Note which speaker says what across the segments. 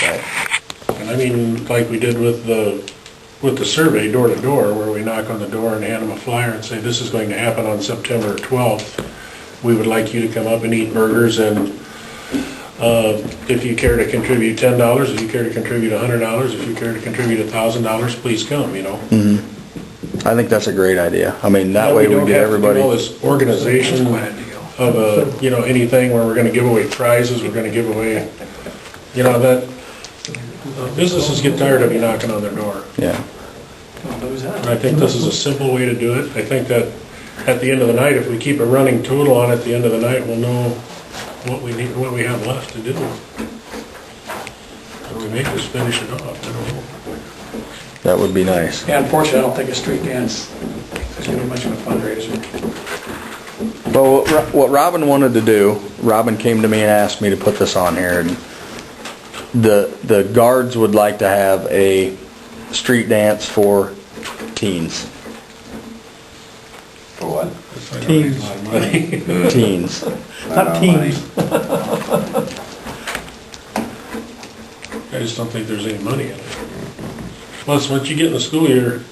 Speaker 1: Right.
Speaker 2: And I mean, like we did with the, with the survey, door to door, where we knock on the door and hand them a flyer and say, this is going to happen on September 12th. We would like you to come up and eat burgers and uh, if you care to contribute $10, if you care to contribute $100, if you care to contribute $1,000, please come, you know?
Speaker 1: I think that's a great idea. I mean, that way we
Speaker 2: don't
Speaker 1: get
Speaker 2: have to do
Speaker 1: everybody.
Speaker 2: All this organization of a, you know, anything where we're gonna give away prizes, we're gonna give away, you know, that, uh, businesses get tired of you knocking on their door.
Speaker 1: Yeah,
Speaker 2: And I think this is a simple way to do it. I think that at the end of the night, if we keep a running total on it, at the end of the night, we'll know what we need, what we have left to do. And we may just finish it off, I don't know.
Speaker 1: that would be nice.
Speaker 3: Yeah, unfortunately, I don't think a street dance is gonna be much of a fundraiser.
Speaker 1: But what Ro- what Robin wanted to do, Robin came to me and asked me to put this on here, and the, the guards would like to have a street dance for teens,
Speaker 3: For what?
Speaker 2: Teams.
Speaker 1: teens.
Speaker 2: Uh,
Speaker 3: Not teens.
Speaker 2: I just don't think there's any money in it. Plus, once you get in the school year,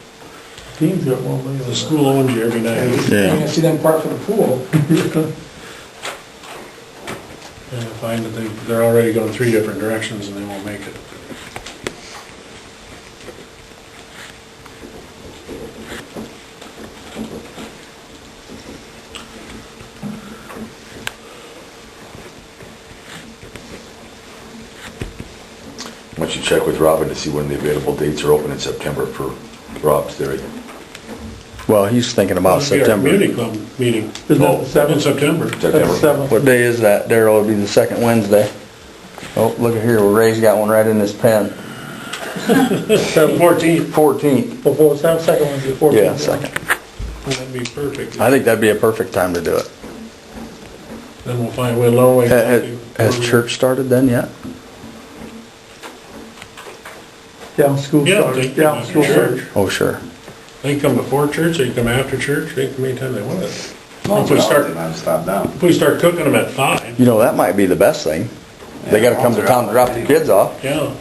Speaker 4: Teams got one million.
Speaker 2: the school owns you every night.
Speaker 1: Yeah.
Speaker 3: You're gonna see them park for the pool.
Speaker 2: And I find that they, they're already going three different directions and they won't make it.
Speaker 5: Why don't you check with Robin to see when the available dates are open in September for Rob's theory?
Speaker 1: Well, he's thinking about
Speaker 2: It'll be our Community
Speaker 1: Oh, September.
Speaker 2: club meeting. Oh,
Speaker 4: Isn't that the
Speaker 2: In
Speaker 4: seventh?
Speaker 2: September.
Speaker 5: September.
Speaker 4: That's seven.
Speaker 1: What day is that, Daryl? It'd be the second Wednesday. Oh, look at here, Ray's got one right in his pen.
Speaker 2: Fourteenth,
Speaker 1: Fourteenth.
Speaker 4: Before, seven, second one's the fourteenth.
Speaker 1: Yeah, second.
Speaker 2: that'd be perfect.
Speaker 1: I think that'd be a perfect time to do it.
Speaker 2: Then we'll find, we'll know.
Speaker 1: Ha- ha- Has church started then yet?
Speaker 4: Yeah, school
Speaker 2: Yeah, they
Speaker 4: started,
Speaker 2: come
Speaker 4: yeah,
Speaker 2: after
Speaker 4: school
Speaker 2: church.
Speaker 4: started.
Speaker 1: Oh, sure.
Speaker 2: They can come before church, they can come after church, they can come anytime they want. If we start,
Speaker 6: I'll stop now.
Speaker 2: if we start cooking them at five,
Speaker 1: You know, that might be the best thing. They gotta come to town to drop the kids off,
Speaker 2: yeah.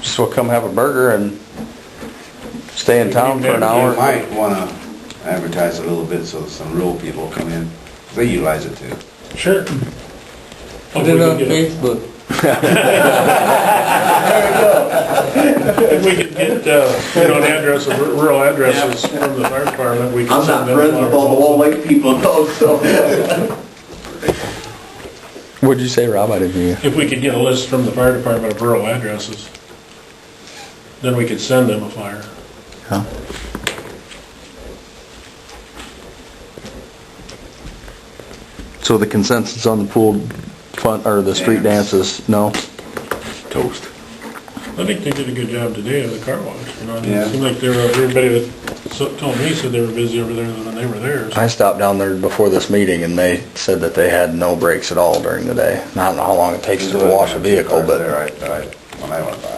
Speaker 1: just will come have a burger and stay in town for an
Speaker 6: You
Speaker 1: hour.
Speaker 6: might wanna advertise a little bit so some real people come in, they utilize it too.
Speaker 2: Sure.
Speaker 7: Put it on Facebook.
Speaker 2: If we could get, uh, you know, an address, of- rural addresses from the fire department, we could
Speaker 8: I'm
Speaker 2: send
Speaker 8: not
Speaker 2: them.
Speaker 8: friends with all the old lake people, though, so.
Speaker 1: What'd you say, Rob? I didn't hear you.
Speaker 2: If we could get a list from the fire department of rural addresses, then we could send them a flyer.
Speaker 1: Huh? So the consensus on the pool fun, or the street dances, no?
Speaker 5: Toast.
Speaker 2: I think they did a good job today of the car wash, you know, and it
Speaker 6: Yeah.
Speaker 2: seemed like there were, everybody that so- told me said they were busy over there than they were there. so-
Speaker 1: I stopped down there before this meeting and they said that they had no breaks at all during the day. I don't know how long it takes to wash a vehicle,
Speaker 6: All
Speaker 1: but
Speaker 6: right, all right, when I went by.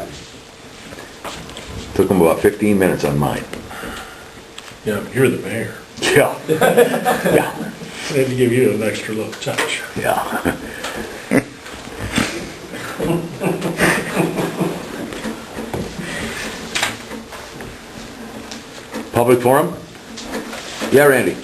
Speaker 5: Took them about 15 minutes on mine.
Speaker 2: Yeah, but you're the mayor.
Speaker 5: Yeah, yeah,
Speaker 2: They had to give you an extra little touch.
Speaker 5: yeah. Public forum? Yeah, Randy?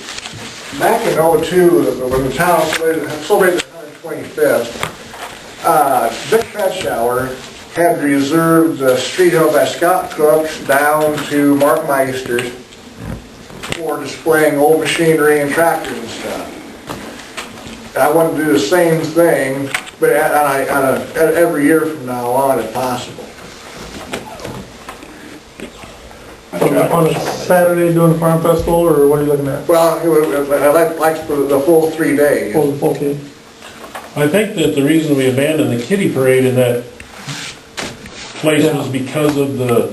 Speaker 9: Back in '02, when the town celebrated celebrated the 125th, uh, Dick Fatshauer had reserved the street out by Scott Cook down to Mark Meister's for displaying old machinery and tractors and stuff. And I wanted to do the same thing, but at- on a- on a- at- every year from now on, if possible.
Speaker 4: On a- On a Saturday doing the farm festival, or what are you looking at?
Speaker 9: Well, it would- I'd like- like for the full three days.
Speaker 4: Oh, the fourteenth.
Speaker 2: I think that the reason we abandoned the kitty parade in that place was because of the,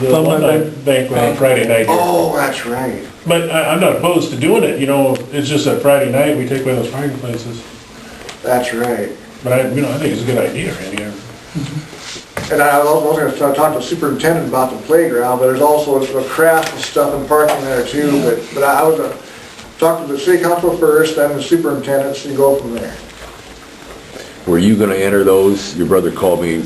Speaker 2: the
Speaker 4: Alumni
Speaker 2: alumni
Speaker 4: ban-
Speaker 2: banquet on Friday night. here.
Speaker 9: Oh, that's right.
Speaker 2: But I, I'm not opposed to doing it, you know, it's just that Friday night, we take away those fireplaces.
Speaker 9: That's right.
Speaker 2: But I, you know, I think it's a good idea, Randy.
Speaker 9: And I was also gonna start talking to the superintendent about the playground, but there's also a craft and stuff and parking there too, but, but I was gonna talk to the city council first, then the superintendent, and go from there.
Speaker 5: Were you gonna enter those? Your brother called me,